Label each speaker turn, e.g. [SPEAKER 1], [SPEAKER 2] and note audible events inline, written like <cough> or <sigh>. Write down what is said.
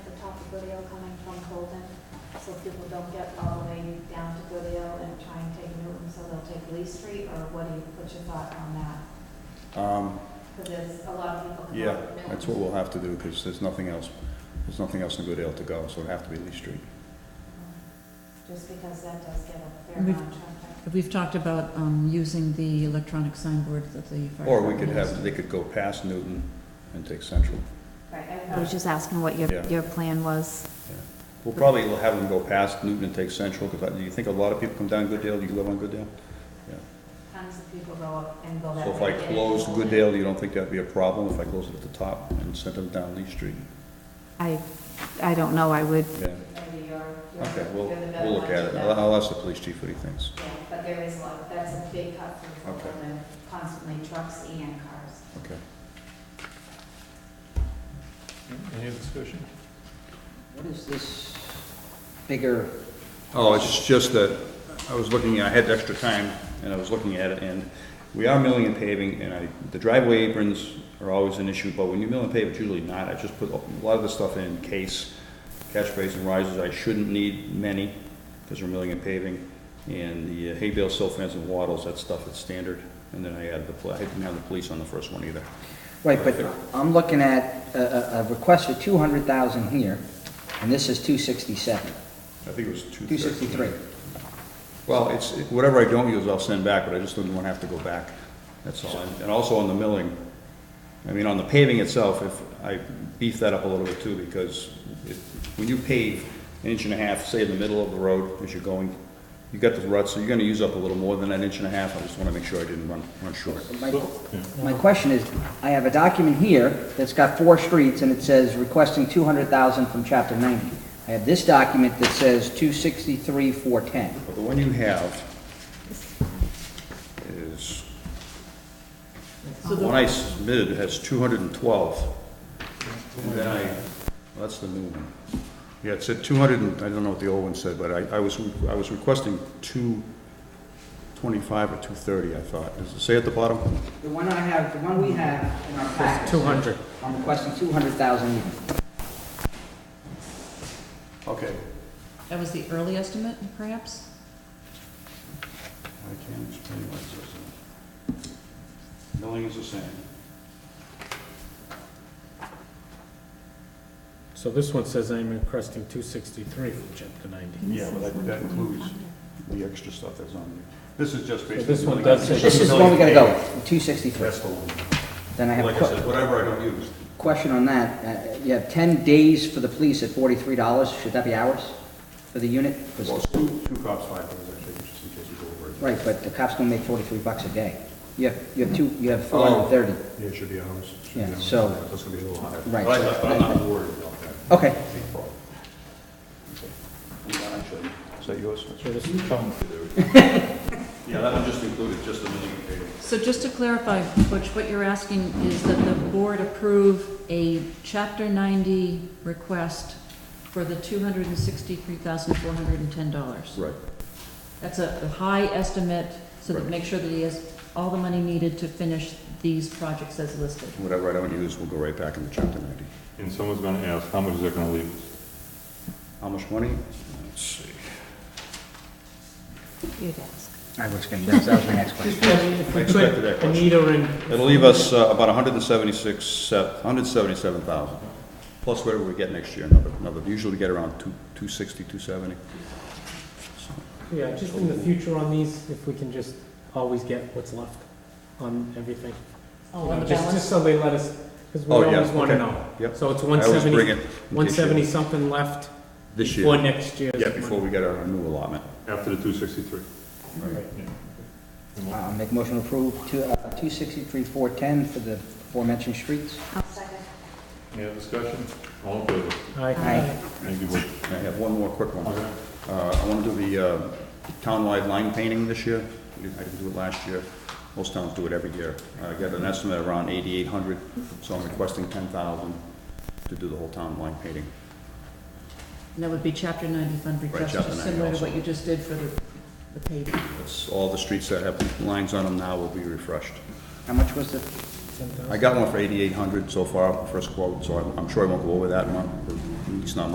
[SPEAKER 1] Goodale coming from Colton, so people don't get all the way down to Goodale and try and take Newton, so they'll take Lee Street, or what do you, what's your thought on that?
[SPEAKER 2] Um,
[SPEAKER 1] Because there's a lot of people coming
[SPEAKER 2] Yeah,
[SPEAKER 1] up Newton.
[SPEAKER 2] that's what we'll have to do, because there's nothing else, there's nothing else in Goodale to go, so it'd have to be Lee Street.
[SPEAKER 1] Just because that does get a fair
[SPEAKER 3] We-
[SPEAKER 1] amount of traffic.
[SPEAKER 3] We've talked about um, using the electronic signboard that the fire.
[SPEAKER 2] Or we could
[SPEAKER 3] department
[SPEAKER 2] have,
[SPEAKER 3] has.
[SPEAKER 2] they could go past Newton and take Central.
[SPEAKER 1] Right, I-
[SPEAKER 4] I was just asking what your,
[SPEAKER 2] Yeah.
[SPEAKER 4] your plan was.
[SPEAKER 2] We'll probably have them go past Newton and take Central, because do you think a lot of people come down Goodale? Do you live on Goodale?
[SPEAKER 1] Tons of people go up and go that
[SPEAKER 2] So
[SPEAKER 1] way.
[SPEAKER 2] if I
[SPEAKER 1] and
[SPEAKER 2] close
[SPEAKER 1] Colton.
[SPEAKER 2] Goodale, you don't think that'd be a problem if I close it at the top and sent them down Lee Street?
[SPEAKER 4] I, I don't know, I would,
[SPEAKER 2] Yeah,
[SPEAKER 1] Maybe you're, you're
[SPEAKER 2] okay, we'll,
[SPEAKER 1] you're the better
[SPEAKER 2] we'll look
[SPEAKER 1] one
[SPEAKER 2] at
[SPEAKER 1] to
[SPEAKER 2] it.
[SPEAKER 1] know.
[SPEAKER 2] I'll, I'll ask the police chief what he thinks.
[SPEAKER 1] Yeah, but there is a lot, that's a big cut from
[SPEAKER 2] Okay.
[SPEAKER 1] Fulton, constantly trucks and cars.
[SPEAKER 2] Okay.
[SPEAKER 5] Any other discussion?
[SPEAKER 6] What is this bigger,
[SPEAKER 2] Oh, it's just that, I was looking, I had extra time, and I was looking at it, and we are milling and paving, and I, the driveway aprons are always an issue, but when you mill and pave, it's usually not, I just put a lot of the stuff in case, catch basin risers, I shouldn't need many, because we're milling and paving, and the uh, hay bale silt fence and wattles, that stuff is standard, and then I added the, pla- I didn't have the police on the first one either.
[SPEAKER 6] right, but I'm looking at a, a- a request for 200,000 here, and this is 267,
[SPEAKER 2] I think it was two thirty.
[SPEAKER 6] 263.
[SPEAKER 2] Well, it's, it- whatever I don't use, I'll send back, but I just didn't want to have to go back, that's all. And- And also on the milling, I mean, on the paving itself, if, I beef that up a little bit too, because it- when you pave an inch and a half, say in the middle of the road as you're going, you got the ruts, so you're gonna use up a little more than that inch and a half, I just want to make sure I didn't run, run short.
[SPEAKER 6] My- My question is, I have a document here that's got four streets, and it says requesting 200,000 from Chapter 90. I have this document that says 263, 410.
[SPEAKER 2] But the one you have is, the one I submitted has two hundred and twelve. And then I, well, that's the new one. Yeah, it said two hundred and, I don't know what the old one said, but I, I was, I was requesting two twenty-five or two thirty, I thought. Does it say at the bottom?
[SPEAKER 6] The one I have, the one we have in our packet.
[SPEAKER 5] 200.
[SPEAKER 6] I'm requesting 200,000 here.
[SPEAKER 2] Okay.
[SPEAKER 3] That was the early estimate, perhaps?
[SPEAKER 2] I can't explain why it says that. Milling is the same.
[SPEAKER 7] So this one says I'm requesting two sixty-three from chapter ninety.
[SPEAKER 2] Yeah, well, that, that includes the extra stuff that's on there. This is just basically.
[SPEAKER 7] So this one
[SPEAKER 2] milling.
[SPEAKER 7] does say-
[SPEAKER 6] This is the one we gotta go with, 263.
[SPEAKER 2] That's the one.
[SPEAKER 6] Then I have a
[SPEAKER 2] Like I
[SPEAKER 6] que-
[SPEAKER 2] said, whatever I don't use.
[SPEAKER 6] question on that. Uh, You have 10 days for the police at $43. Should that be hours for the unit? 'Cause-
[SPEAKER 2] Well, it's two, two cops, five dollars actually, just in case we go over. it.
[SPEAKER 6] Right, but the cops don't make 43 bucks a day. You have, you have two, you have 430.
[SPEAKER 2] Yeah, it should be ours. It should be
[SPEAKER 6] Yeah,
[SPEAKER 2] ours.
[SPEAKER 6] so-
[SPEAKER 2] That's gonna be a little higher.
[SPEAKER 6] Right,
[SPEAKER 2] But
[SPEAKER 6] so-
[SPEAKER 2] I- I'm not worried about that.
[SPEAKER 6] Okay.
[SPEAKER 2] Big problem. Okay. Yeah, I should. Is that yours? That's
[SPEAKER 7] So
[SPEAKER 2] right.
[SPEAKER 7] this is
[SPEAKER 2] <laughs>
[SPEAKER 7] coming.
[SPEAKER 2] Yeah, that one just included, just the milling and paving.
[SPEAKER 3] So just to clarify, Butch, what you're asking is that the board approve a chapter ninety request for the two hundred and sixty-three thousand, four hundred and ten dollars.
[SPEAKER 2] Right.
[SPEAKER 3] That's a a high estimate, so that
[SPEAKER 2] Right.
[SPEAKER 3] make sure that he has all the money needed to finish these projects as listed.
[SPEAKER 2] Whatever I don't use, will go right back into chapter ninety.
[SPEAKER 5] And someone's gonna ask, how much is that gonna leave us?
[SPEAKER 2] How much money? Let's see.
[SPEAKER 4] You'd ask.
[SPEAKER 6] I was gonna, that was that was my next question. Uh,
[SPEAKER 7] If we
[SPEAKER 2] expected that
[SPEAKER 7] could,
[SPEAKER 2] question.
[SPEAKER 7] Anita and.
[SPEAKER 2] It'll leave us uh, about hundred and seventy-six, uh, hundred and seventy-seven thousand, plus whatever we get next year, another, another, usually we get around two, two sixty, two seventy.
[SPEAKER 7] Yeah, just in the future on these, if we can just always get what's left on everything.
[SPEAKER 3] Oh, on
[SPEAKER 7] You
[SPEAKER 3] the
[SPEAKER 7] know, Just,
[SPEAKER 3] balance?
[SPEAKER 7] just so they let us, because we
[SPEAKER 2] Oh, yeah,
[SPEAKER 7] always wanna
[SPEAKER 2] okay.
[SPEAKER 7] know.
[SPEAKER 2] Yep.
[SPEAKER 7] So it's
[SPEAKER 2] I
[SPEAKER 7] one
[SPEAKER 2] always bring
[SPEAKER 7] seventy,
[SPEAKER 2] it. in case you-
[SPEAKER 7] one seventy something left
[SPEAKER 2] This
[SPEAKER 7] for
[SPEAKER 2] year.
[SPEAKER 7] next year's.
[SPEAKER 2] Yeah, before we get our new allotment.
[SPEAKER 5] After the two sixty-three?
[SPEAKER 7] Right.
[SPEAKER 6] I'll make a motion to approve two- uh, 263, 410 for the aforementioned streets.
[SPEAKER 1] Second.
[SPEAKER 5] Any other discussion? All in favor?
[SPEAKER 7] Aye.
[SPEAKER 6] Aye.
[SPEAKER 5] Thank you, Board.
[SPEAKER 2] I have one more quick one. Uh, I want to do the uh, townwide line painting this year. We didn't- I didn't do it last year. Most towns do it every year. I got an estimate around 8,800, so I'm requesting 10,000 to do the whole town line painting.
[SPEAKER 3] And that would be chapter ninety fund request,
[SPEAKER 2] chapter
[SPEAKER 3] just
[SPEAKER 2] 90
[SPEAKER 3] similar to
[SPEAKER 2] also.
[SPEAKER 3] what you just did for the, the paving.
[SPEAKER 2] That's, all the streets that have lines on them now will be refreshed.
[SPEAKER 6] How much was the,
[SPEAKER 2] I got one for 8,800 so far, first quote, so I'm- I'm sure I won't go over that one, at least not